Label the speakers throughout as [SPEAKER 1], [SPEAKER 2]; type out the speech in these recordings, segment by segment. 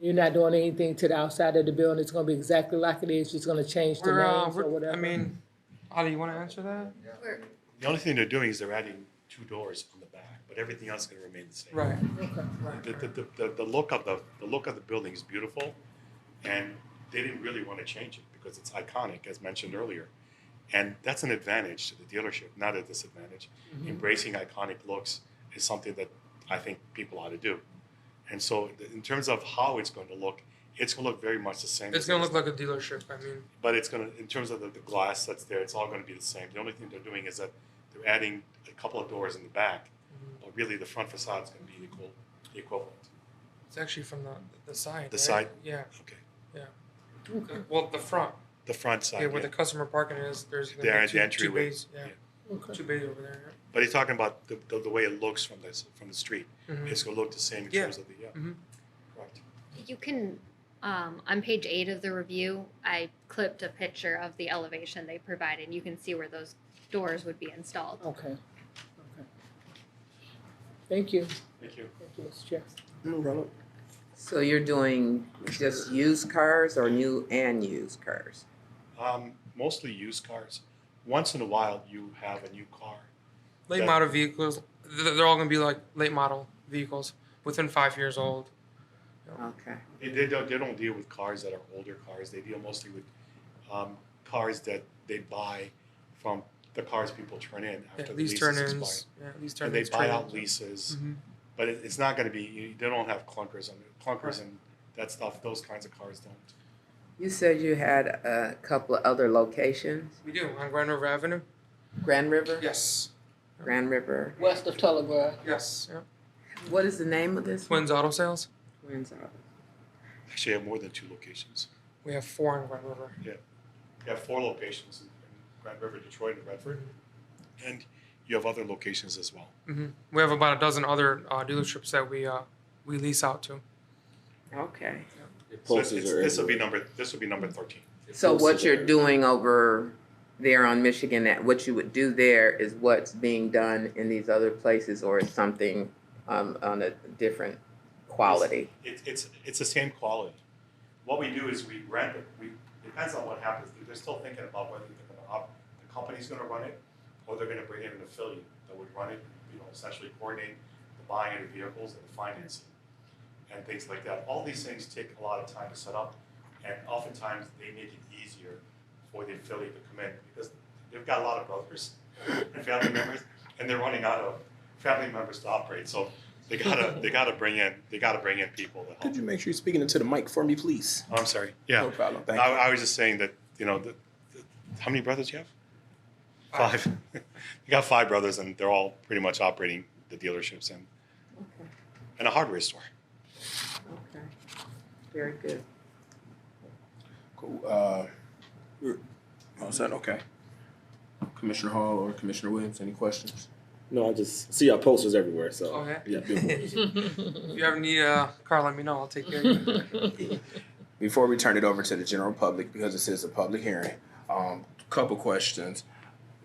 [SPEAKER 1] You're not doing anything to the outside of the building. It's gonna be exactly like it is. Just gonna change the
[SPEAKER 2] We're, uh,
[SPEAKER 1] names or
[SPEAKER 2] we're-
[SPEAKER 1] whatever.
[SPEAKER 2] I mean, Ollie, you want to answer that?
[SPEAKER 3] We're-
[SPEAKER 4] The only thing they're doing is they're adding two doors on the back, but everything else is gonna remain the same.
[SPEAKER 2] Right.
[SPEAKER 4] The, the, the- the, the look of the, the look of the building is beautiful, and they didn't really wanna change it because it's iconic, as mentioned earlier. And that's an advantage to the dealership, not a disadvantage. Embracing iconic looks is something that I think people ought to do. And so th- in terms of how it's going to look, it's gonna look very much the same.
[SPEAKER 2] It's
[SPEAKER 4] as
[SPEAKER 2] gonna
[SPEAKER 4] it is
[SPEAKER 2] look like a dealership. I mean,
[SPEAKER 4] but it's gonna in terms of the, the glass that's there, it's all gonna be the same. The only thing they're doing is that they're adding a couple of doors in the back,
[SPEAKER 2] Mm-hmm.
[SPEAKER 4] but really the front facade is gonna be equal, the equivalent.
[SPEAKER 2] it's actually from the the side.
[SPEAKER 4] The
[SPEAKER 2] right?
[SPEAKER 4] side?
[SPEAKER 2] Yeah.
[SPEAKER 4] Okay,
[SPEAKER 1] Okay,
[SPEAKER 2] Well, the front.
[SPEAKER 4] the front side.
[SPEAKER 2] yeah, where
[SPEAKER 4] yeah.
[SPEAKER 2] the customer parking is. There's gonna
[SPEAKER 4] There
[SPEAKER 2] be
[SPEAKER 4] at
[SPEAKER 2] two,
[SPEAKER 4] the
[SPEAKER 2] two
[SPEAKER 4] entryway.
[SPEAKER 2] bays. Yeah.
[SPEAKER 1] okay.
[SPEAKER 2] Two bays over there.
[SPEAKER 4] but he's talking about the, the, the way it looks from this from the street.
[SPEAKER 2] Yeah. Mhm.
[SPEAKER 4] It's gonna look the same in
[SPEAKER 2] Yeah.
[SPEAKER 4] terms of the yeah.
[SPEAKER 2] Mhm.
[SPEAKER 4] Correct.
[SPEAKER 3] You can, um, on page eight of the review, I clipped a picture of the elevation they provided. and You can see where those doors would be installed.
[SPEAKER 1] Okay. Okay. Thank you.
[SPEAKER 4] Thank you.
[SPEAKER 1] Thank you, Mr. Chair.
[SPEAKER 5] So you're doing just used cars or new and used cars?
[SPEAKER 4] Um, mostly used cars. Once in a while you have a new car.
[SPEAKER 2] Late
[SPEAKER 4] That-
[SPEAKER 2] model vehicles. th- They're all gonna be like late model vehicles within five years old.
[SPEAKER 5] Okay.
[SPEAKER 4] They, they don't they don't deal with cars that are older cars. They deal mostly with um, cars that they buy from the cars people turn in after
[SPEAKER 2] Yeah,
[SPEAKER 4] the
[SPEAKER 2] lease
[SPEAKER 4] leases expire.
[SPEAKER 2] turn-ins. Yeah, lease
[SPEAKER 4] and
[SPEAKER 2] turn-ins.
[SPEAKER 4] they buy out
[SPEAKER 2] trade-ins.
[SPEAKER 4] leases,
[SPEAKER 2] Mhm.
[SPEAKER 4] but it, it's not going to be. You, they don't have clunkers on clunkers and that stuff. Those kinds of cars don't.
[SPEAKER 5] You said you had a couple of other locations?
[SPEAKER 2] We do on Grand River Avenue.
[SPEAKER 5] Grand River?
[SPEAKER 2] Yes.
[SPEAKER 5] Grand River.
[SPEAKER 1] West of Telegraph.
[SPEAKER 2] Yes. Yeah.
[SPEAKER 5] What is the name of this?
[SPEAKER 2] Twins Auto Sales.
[SPEAKER 5] Twins Auto.
[SPEAKER 4] Actually, I have more than two locations.
[SPEAKER 2] We have four on Grand River.
[SPEAKER 4] You have four locations in, in Grand River, Detroit, and Redford, and you have other locations as well.
[SPEAKER 2] hmm We have about a dozen other uh, dealerships that we uh, we lease out to.
[SPEAKER 5] Okay.
[SPEAKER 4] So it's- it's- this will be number this will be number thirteen.
[SPEAKER 5] So what you're doing over there on Michigan, that what you would do there is what's being done in these other places or is something um, on a different quality?
[SPEAKER 4] It's it's it's the same quality. What we do is we rent it. We depends on what happens. They're still thinking about whether they're going to up the company's going to run it, or they're going to bring in an affiliate that would run it. You know, essentially coordinate the buying of the vehicles and the financing and things like that. All these things take a lot of time to set up, and oftentimes they make it easier for the affiliate to come in because they've got a lot of brothers and family members, and they're running out of family members to operate. So they gotta they gotta bring in they gotta bring in people to help.
[SPEAKER 6] Could you make sure you're speaking into the mic for me, please?
[SPEAKER 4] Oh, I'm sorry. Yeah.
[SPEAKER 6] No problem.
[SPEAKER 4] I,
[SPEAKER 6] Thank you.
[SPEAKER 4] I was just saying that you know, the, the, how many brothers do you have? Five. you got five brothers, and they're all pretty much operating the dealerships and
[SPEAKER 5] Okay.
[SPEAKER 4] and a hardware store.
[SPEAKER 5] Okay. Very good.
[SPEAKER 6] Cool. Uh, you're all set? Okay. Commissioner Hall or Commissioner Williams, any questions?
[SPEAKER 7] No, I just see our posters everywhere. So
[SPEAKER 2] Oh, yeah?
[SPEAKER 6] beautiful.
[SPEAKER 2] If you ever need a car, let me know. I'll take care of you.
[SPEAKER 6] Before we turn it over to the general public, because this is a public hearing, um, couple questions.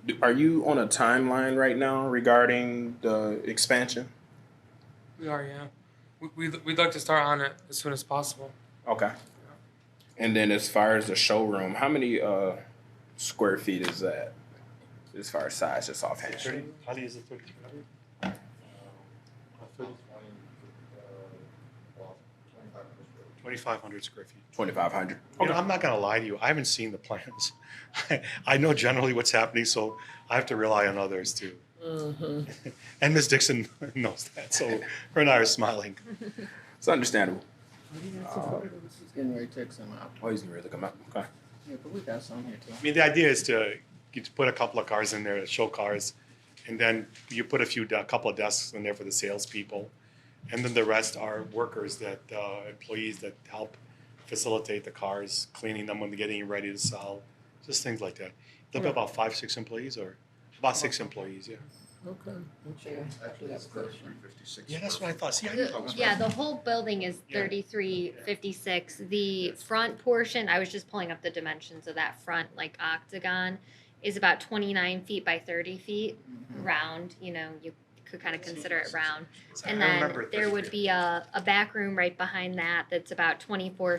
[SPEAKER 6] Do- Are you on a timeline right now regarding the expansion?
[SPEAKER 2] we are, yeah. We, we'd, we'd like to start on it as soon as possible.
[SPEAKER 6] Okay. And then as far as the showroom, how many uh, square feet is that? As far as size, just offhand.
[SPEAKER 4] Thirty. How do you use it? Thirty. Twenty-five hundred square feet.
[SPEAKER 6] Twenty-five hundred.
[SPEAKER 4] You know, Oh, I'm not gonna lie to you. I haven't seen the plans. I know generally what's happening, so I have to rely on others too.
[SPEAKER 1] Mhm.
[SPEAKER 4] And Ms. Dixon knows that, so her and I are smiling.
[SPEAKER 6] It's understandable. Uh,
[SPEAKER 8] She's getting ready to take some out.
[SPEAKER 6] Oh, he's gonna really come out. Okay.
[SPEAKER 8] Yeah, but we got some here too.
[SPEAKER 4] I mean, the idea is to you to put a couple of cars in there, show cars, and then you put a few a couple of desks in there for the salespeople, and then the rest are workers that uh, employees that help facilitate the cars, cleaning them when they're getting ready to sell, just things like that. There'll be about five, six employees, or about six employees. Yeah.
[SPEAKER 1] Okay.
[SPEAKER 8] Actually, that's question.
[SPEAKER 4] Yeah, that's what I thought. See, I knew I
[SPEAKER 3] The-
[SPEAKER 4] was
[SPEAKER 3] Yeah,
[SPEAKER 4] right.
[SPEAKER 3] the whole building is
[SPEAKER 4] Yeah.
[SPEAKER 3] thirty-three fifty-six. The front portion, I was just pulling up the dimensions of that front, like
[SPEAKER 8] Mm-hmm.
[SPEAKER 4] Hmm.
[SPEAKER 3] octagon, is about twenty-nine feet by thirty feet, round, you know, you could could kind of consider it round.
[SPEAKER 2] So I
[SPEAKER 3] And
[SPEAKER 2] remember
[SPEAKER 3] then
[SPEAKER 2] it
[SPEAKER 3] there
[SPEAKER 2] perfectly.
[SPEAKER 3] would be a, a back room right behind that that's about twenty-four